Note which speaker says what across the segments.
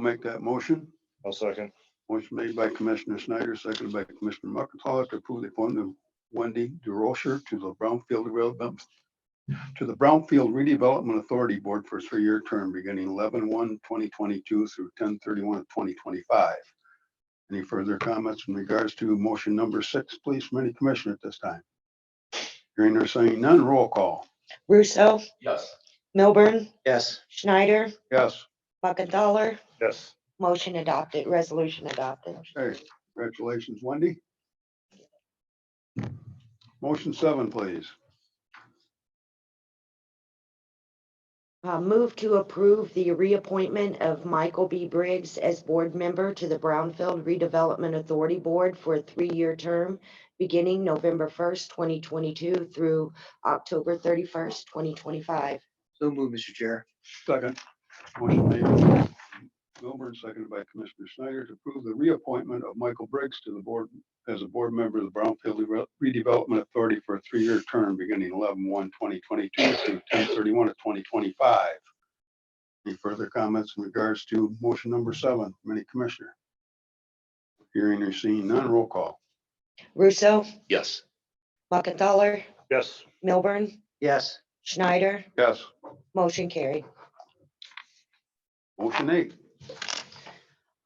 Speaker 1: Make that motion.
Speaker 2: I'll second.
Speaker 1: Motion made by Commissioner Snyder, seconded by Commissioner McIntosh to approve the appointment of Wendy DeRocher to the Brownfield Development, to the Brownfield Redevelopment Authority Board for a three-year term beginning 11-1-2022 through 10-31-2025. Any further comments in regards to motion number six, please, from any commissioner at this time? Hearing or saying none, roll call.
Speaker 3: Russo,
Speaker 4: Yes.
Speaker 3: Milburn,
Speaker 4: Yes.
Speaker 3: Schneider,
Speaker 1: Yes.
Speaker 3: Muckenthaler,
Speaker 2: Yes.
Speaker 3: motion adopted, resolution adopted.
Speaker 1: Hey, congratulations, Wendy. Motion seven, please.
Speaker 3: Uh, move to approve the reappointment of Michael B. Briggs as board member to the Brownfield Redevelopment Authority Board for a three-year term beginning November first, twenty twenty-two through October thirty-first, twenty twenty-five.
Speaker 4: So move, Mr. Chair.
Speaker 1: Second. Motion made by Milburn, seconded by Commissioner Snyder to approve the reappointment of Michael Briggs to the board as a board member of the Brownfield Re- Redevelopment Authority for a three-year term beginning 11-1-2022 through 10-31 of twenty twenty-five. Any further comments in regards to motion number seven, from any commissioner? Hearing or seeing none, roll call.
Speaker 3: Russo,
Speaker 4: Yes.
Speaker 3: Muckenthaler,
Speaker 2: Yes.
Speaker 3: Milburn,
Speaker 4: Yes.
Speaker 3: Schneider,
Speaker 1: Yes.
Speaker 3: motion carried.
Speaker 1: Motion eight.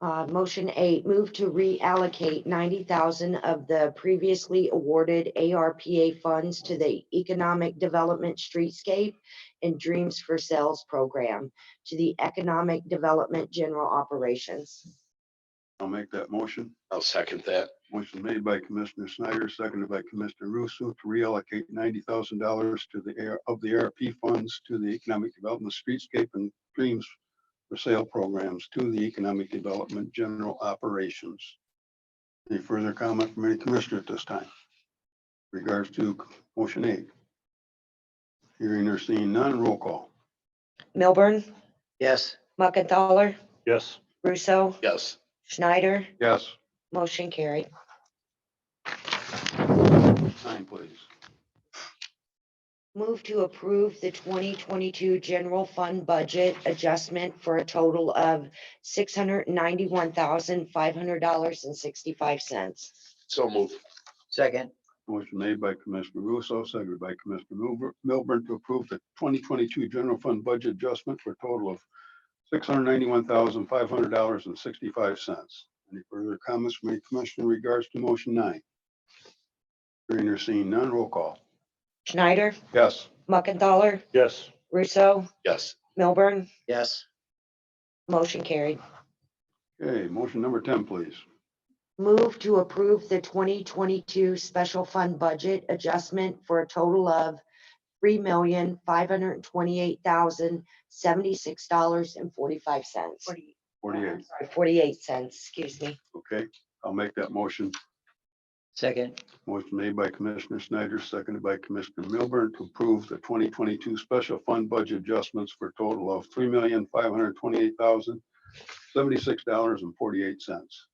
Speaker 3: Uh, motion eight, move to reallocate ninety thousand of the previously awarded ARPA funds to the Economic Development Streetscape and Dreams for Sales Program to the Economic Development General Operations.
Speaker 1: I'll make that motion.
Speaker 5: I'll second that.
Speaker 1: Motion made by Commissioner Snyder, seconded by Commissioner Russo to reallocate ninety thousand dollars to the air of the ARP funds to the Economic Development Streetscape and Dreams for Sale programs to the Economic Development General Operations. Any further comment from any commissioner at this time? Regards to motion eight. Hearing or seeing none, roll call.
Speaker 3: Milburn,
Speaker 4: Yes.
Speaker 3: Muckenthaler,
Speaker 2: Yes.
Speaker 3: Russo,
Speaker 5: Yes,
Speaker 3: Schneider,
Speaker 1: Yes.
Speaker 3: motion carried.
Speaker 1: Nine, please.
Speaker 3: Move to approve the twenty twenty-two general fund budget adjustment for a total of six hundred ninety-one thousand, five hundred dollars and sixty-five cents.
Speaker 5: so move.
Speaker 4: Second.
Speaker 1: Motion made by Commissioner Russo, seconded by Commissioner Milbur- Milburn to approve the twenty twenty-two general fund budget adjustment for a total of six hundred ninety-one thousand, five hundred dollars and sixty-five cents. Any further comments from any commissioner in regards to motion nine? Hearing or seeing none, roll call.
Speaker 3: Schneider,
Speaker 1: Yes.
Speaker 3: Muckenthaler,
Speaker 2: Yes.
Speaker 3: Russo,
Speaker 5: Yes,
Speaker 3: Milburn,
Speaker 4: Yes.
Speaker 3: motion carried.
Speaker 1: Okay, motion number ten, please.
Speaker 3: Move to approve the twenty twenty-two special fund budget adjustment for a total of three million, five hundred twenty-eight thousand, seventy-six dollars and forty-five cents.
Speaker 1: Forty-eight,
Speaker 3: Forty-eight cents, excuse me.
Speaker 1: okay? I'll make that motion.
Speaker 4: Second.
Speaker 1: Motion made by Commissioner Snyder, seconded by Commissioner Milburn to approve the twenty twenty-two special fund budget adjustments for a total of three million, five hundred twenty-eight thousand, seventy-six dollars and forty-eight cents.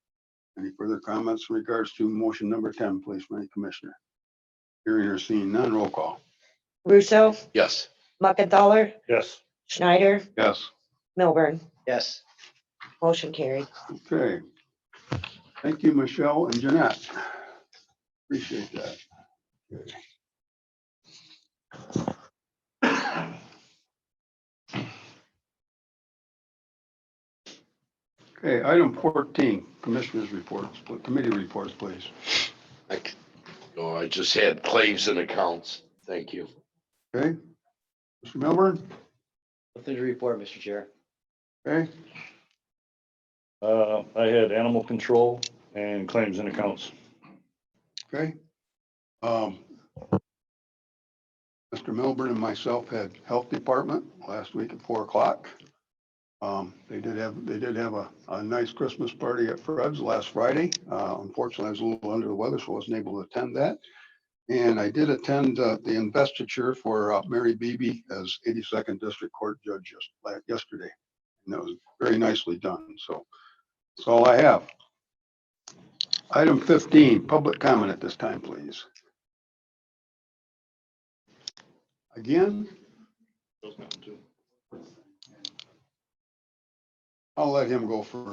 Speaker 1: Any further comments in regards to motion number ten, please, my commissioner? Hearing or seeing none, roll call.
Speaker 3: Russo,
Speaker 5: yes,
Speaker 3: Muckenthaler,
Speaker 2: Yes.
Speaker 3: Schneider,
Speaker 1: Yes.
Speaker 3: Milburn,
Speaker 4: Yes.
Speaker 3: motion carried.
Speaker 1: Okay. Thank you, Michelle and Jeanette. Appreciate that. Okay, item fourteen, commissioners reports, committee reports, please.
Speaker 5: I, c- oh, I just had claims and accounts. Thank you.
Speaker 1: Okay? Mr. Milburn,
Speaker 4: Nothing to report, Mr. Chair.
Speaker 1: okay?
Speaker 2: Uh, I had animal control and claims and accounts.
Speaker 1: Okay. Um, Mr. Milburn and myself had Health Department last week at four o'clock. Um, They did have, they did have a, a nice Christmas party at Fred's last Friday. Uh, Unfortunately, I was a little under the weather, so I wasn't able to attend that. And I did attend uh, the investiture for uh, Mary Beebe as 82nd District Court Judge just la- yesterday. And that was very nicely done, so that's all I have. Item fifteen, public comment at this time, please. Again, I'll let him go first.